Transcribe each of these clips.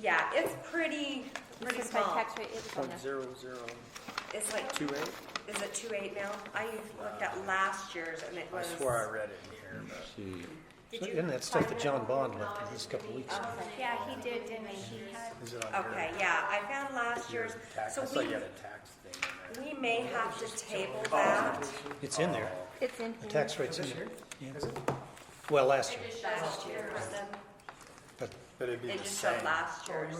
yeah, it's pretty, pretty Since my small. tax rate is on Oh, Point there. zero zero It's like, two eight? is it two eight now? I looked at last year's and it I was. swore I read it in here, but. Did you? Uh-huh. Isn't that stuff that John Bond left in just a couple weeks ago? Yeah, he did, didn't he? He had, Is it on your- Okay, yeah, I found last your year's, tax? Oh, so I saw you had a we, tax thing in there. we may have to table that. It's in there. It's in The here. tax rate's in there. Yeah. Well, last year, Last year, Kristen. but But it'd be It the just showed same. last year's.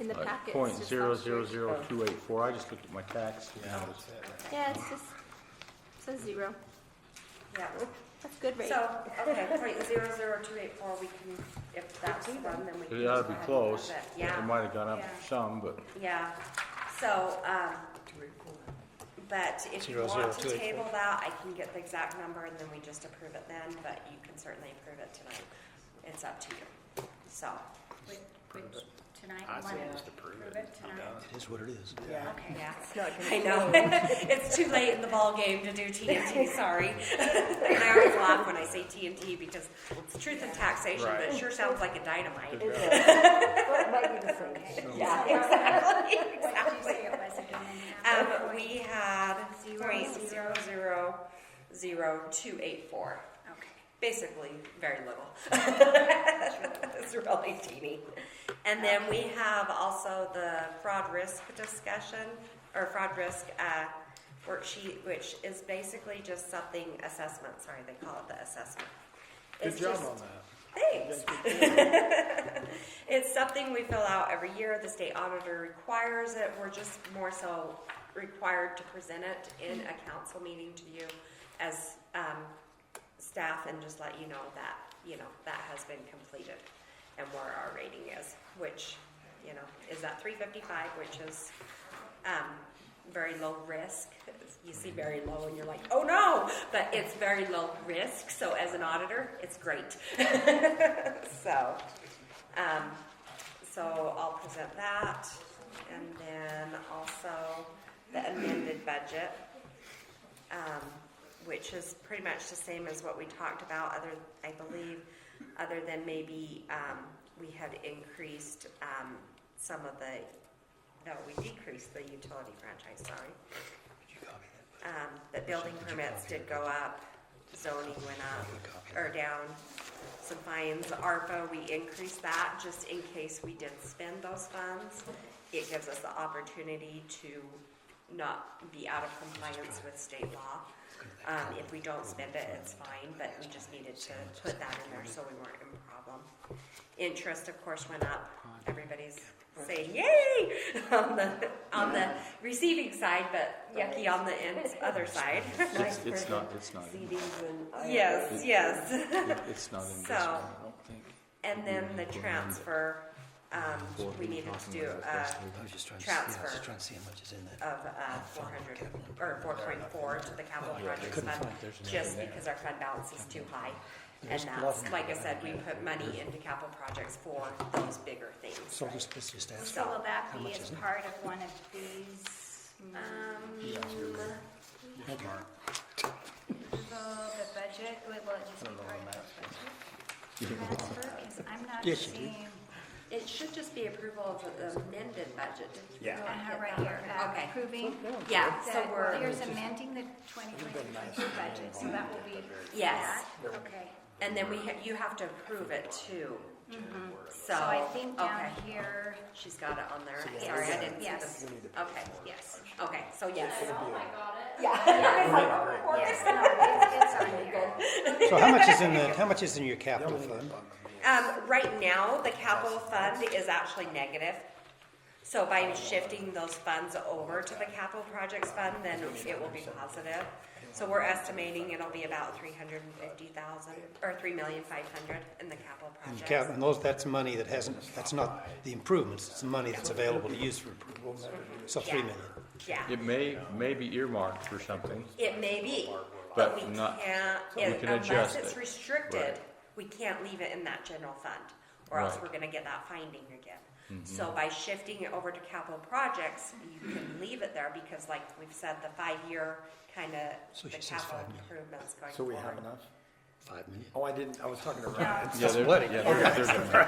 In the packet. it's Point just zero last zero year's. zero two eight four, I just looked at my tax. Yeah, that's it. Yeah, it's just, it's a zero. Yeah. That's good rate. So, okay, point zero zero two eight four, we can, if that's the one, then we can. It ought just to be go ahead and close, have it. it Yeah. might have gone up Yeah. some, but Yeah, so, um, but if you Zero, zero, want to two, eight, table that, I can get the exact number and then we just approve it then, but you can certainly approve it tonight. It's up to you, so. which, which, tonight, I say Monday. just approve it. Approve it Be tonight. done. it is what it is. Okay. Yeah, I know. It's too late in the ballgame to do TNT, sorry. And I always laugh when I say TNT because it's truth in taxation, but it Right. sure sounds like a dynamite. Yeah, exactly, What did you say it was again? Um, now? we had point zero zero zero two eight four. Okay. Basically, very little. It's really teeny. And then we have also the fraud risk discussion, or fraud risk, uh, worksheet, which is basically just something assessment, sorry, they call it the assessment. Good It's job just- on that. Thanks. It's something we fill out every year, the state auditor requires it, we're just more so required to present it in a council meeting to you as, um, staff and just let you know that, you know, that has been completed and where our rating is, which, you know, is at three fifty-five, which is, um, very low risk. You see very low and you're like, oh no, but it's very low risk, so as an auditor, it's great. So, um, so I'll present that, and then also the amended budget, um, which is pretty much the same as what we talked about, other, I believe, other than maybe, um, we had increased, um, some of the, no, we decreased the utility franchise, sorry. Um, but building permits did go up, zoning went up, or down, some fines, ARPA, we increased that just in case we did spend those funds. It gives us the opportunity to not be out of compliance with state law. Um, if we don't spend it, it's fine, but we just needed to put that in there so we weren't in problem. Interest, of course, went up, everybody's saying yay on the, on the receiving side, but yucky on the ins- other side. it's, it's not, it's not, in- Yes, yes. it- it's not in this So- one, I don't think. And then the transfer, um, we needed to do a I was just trying to see- yeah, I was just Transfer. trying to see how much is in of, uh, four hundred, or four point four to the capital projects couldn't fund, find- there's another just there. because our fund balance is too high. And There's a lot of that's, them. like I said, we put money into capital projects for those bigger things. So just, let's just ask. So will that How be much as is it? part of one of these, um, the, the budget, will it just be part of the budget? Transfer, cause I'm not Yes, you do. seeing, It should just be approval of the amended budget. Yeah. I have right here, uh, Okay. approving Yeah, so that we're, here's amending the twenty twenty-two budget, so that will be. Yes. that? Okay, and then we, ha- you have to approve it too. So, Mm-hmm. so I think um, down okay, here, she's got it on there, Yes. sorry, I didn't see Yes. this. Okay, yes. Oh okay, so yes. Yes, no, it's- it's on here. So how much is in the, how much is in your capital fund? Um, right now, the capital fund is actually negative. So by shifting those funds over to the capital projects fund, then it will be positive. So we're estimating it'll be about three hundred and fifty thousand, or three million five hundred in the capital And projects. cap, and those, that's money that hasn't, that's not the improvements, it's the money that's available to use for improvements. So three Yeah. million. Yeah, It may, may be earmarked for something, it may be, but But we not- can't, we it- can unless adjust it's it. restricted, Right. we can't leave it in that general fund, or else Right. Mm-hmm. we're gonna get that finding again. So by shifting it over to capital projects, you can leave it there, because like we've said, the five-year kinda, So the she says capital five million. improvements going So we have forward. enough? Five million. Oh, I didn't, I was talking to Ryan. yeah, there, yeah, there- there's a